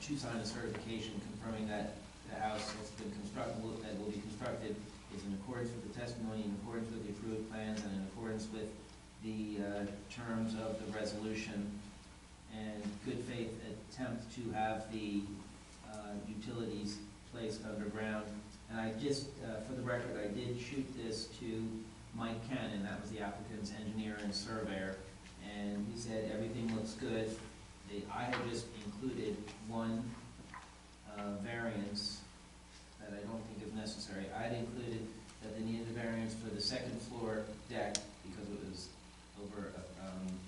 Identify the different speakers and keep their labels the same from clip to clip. Speaker 1: should sign a certification confirming that the house that's been constructed, that will be constructed is in accordance with the testimony, in accordance with the approved plans, and in accordance with the uh, terms of the resolution, and good faith attempt to have the uh, utilities placed underground. And I just, uh, for the record, I did shoot this to Mike Cannon, that was the applicant's engineer and surveyor, and he said everything looks good. They, I had just included one, uh, variance that I don't think is necessary. I had included that they needed a variance for the second floor deck because it was over, um,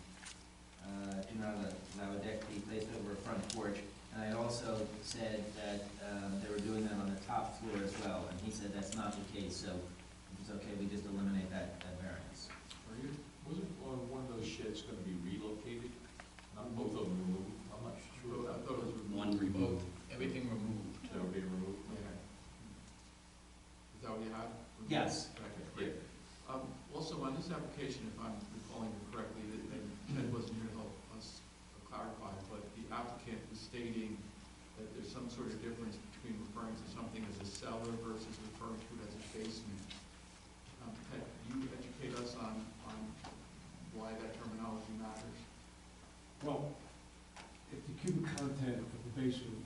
Speaker 1: uh, do not allow a deck to be placed over a front porch. And I also said that, um, they were doing that on the top floor as well, and he said that's not the case, so if it's okay, we just eliminate that, that variance.
Speaker 2: Are you, wasn't uh, one of those sheds gonna be relocated? Not both of them removed? I'm not sure.
Speaker 3: I thought it was removed.
Speaker 4: One removed.
Speaker 3: Everything removed.
Speaker 2: They'll be removed?
Speaker 3: Yeah. Is that what you had?
Speaker 1: Yes.
Speaker 3: Okay, great. Um, also, on this application, if I'm recalling it correctly, that, that Ted wasn't here to help us clarify, but the applicant was stating that there's some sort of difference between referring to something as a cellar versus referring to it as a basement. Um, Ted, can you educate us on, on why that terminology matters?
Speaker 5: Well, if the cubic content of the basement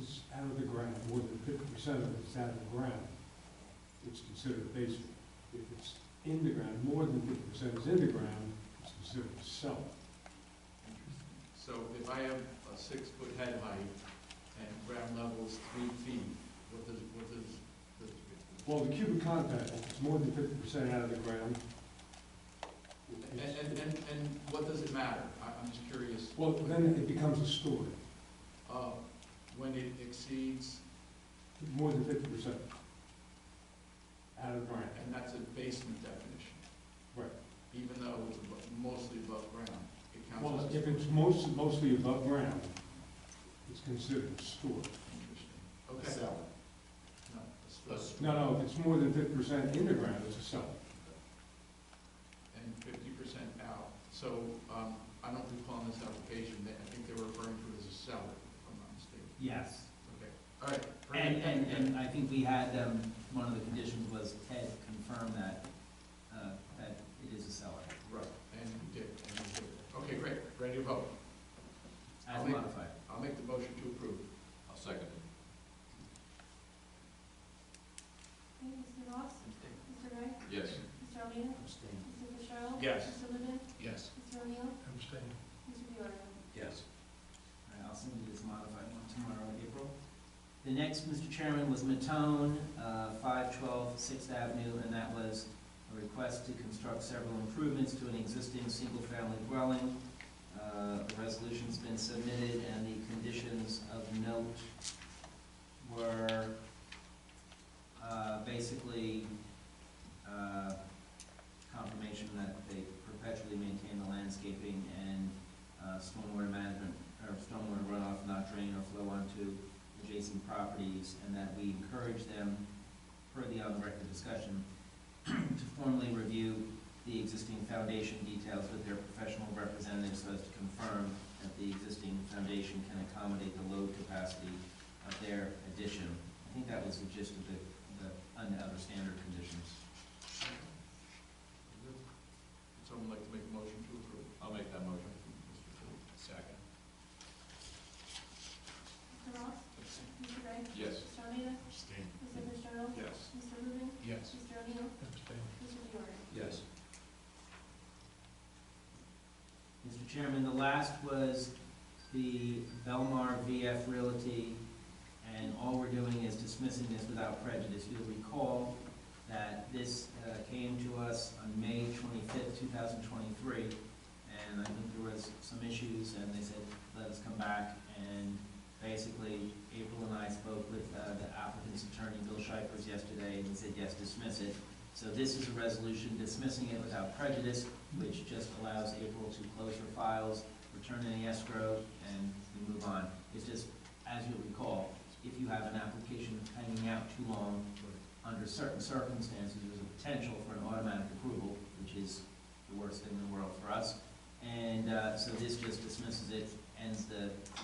Speaker 5: is out of the ground, more than fifty percent of it is out of the ground, it's considered a basement. If it's in the ground, more than fifty percent is in the ground, it's considered a cellar.
Speaker 3: So if I have a six-foot head height and ground level's three feet, what does, what does, the-
Speaker 5: Well, the cubic content, if it's more than fifty percent out of the ground. it-
Speaker 3: and,
Speaker 5: it's-
Speaker 3: and, and, and what does it matter? I, I'm just curious.
Speaker 5: Well, then it becomes a story,
Speaker 3: Uh, when it exceeds,
Speaker 5: more than fifty percent out of the ground.
Speaker 3: and that's a basement definition.
Speaker 5: Right.
Speaker 3: Even though it's abo- mostly above ground, it counts
Speaker 5: Well,
Speaker 3: as.
Speaker 5: if it's most, mostly above ground, it's considered a story.
Speaker 3: Interesting. Okay. No, a story.
Speaker 5: No, no, if it's more than fifty percent in the ground, it's a cellar.
Speaker 3: and fifty percent out. So, um, I don't recall in this application, that I think they were referring to it as a cellar, if I'm not mistaken.
Speaker 1: Yes.
Speaker 3: Okay, all right.
Speaker 1: And, and, and I think we had, um, one of the conditions was Ted confirm that, uh, that it is a seller,
Speaker 3: Right, and you did, and you did. Okay, great, ready to vote.
Speaker 1: as
Speaker 3: Okay.
Speaker 1: modified.
Speaker 3: I'll make the motion to approve.
Speaker 2: I'll second it.
Speaker 6: Mr. Ross? Mr. Ray?
Speaker 2: Yes.
Speaker 6: Mr. Almeida? Mr. Fitzgerald?
Speaker 3: Yes.
Speaker 6: Mr. Lubin?
Speaker 3: Yes.
Speaker 6: Mr. O'Neill? Mr. Diorno?
Speaker 2: Yes.
Speaker 1: All right, I'll send you this modified one tomorrow, April. The next, Mr. Chairman, was Matone, uh, 512 Sixth Avenue, and that was a request to construct several improvements to an existing single-family dwelling. Uh, The resolution's been submitted, and the conditions of note were uh, basically uh, confirmation that they perpetually maintain the landscaping and uh, stormwater management, or stormwater runoff not drain or flow onto adjacent properties, and that we encourage them, per the on-record discussion, to formally review the existing foundation details with their professional representatives so as to confirm that the existing foundation can accommodate the load capacity of their addition. I think that was the gist of the, the, under other standard conditions.
Speaker 3: Would someone like to make a motion to approve?
Speaker 2: I'll make that motion.
Speaker 3: Mr. Phillips.
Speaker 2: Second.
Speaker 6: Mr. Ross? Mr. Ray?
Speaker 2: Yes.
Speaker 6: Mr. Almeida? Mr. Fitzgerald?
Speaker 3: Yes.
Speaker 6: Mr. Lubin?
Speaker 3: Yes.
Speaker 6: Mr. O'Neill? Mr. Diorno?
Speaker 2: Yes.
Speaker 1: Mr. Chairman, the last was the Belmar VF Realty, and all we're doing is dismissing this without prejudice. You'll recall that this uh, came to us on May twenty-fifth, two thousand twenty-three, and I think there was some issues, and they said, let us come back, and basically, April and I spoke with uh, the applicant's attorney, Bill Shipers, yesterday, and he said, yes, dismiss it. So this is a resolution dismissing it without prejudice, which just allows April to close her files, return any escrow, and we move on. It's just, as you'll recall, if you have an application hanging out too long, under certain circumstances, there's a potential for an automatic approval, which is the worst thing in the world for us. And uh, so this just dismisses it,
Speaker 7: ends the,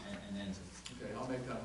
Speaker 7: and- and ends it.
Speaker 1: Okay, I'll make that motion.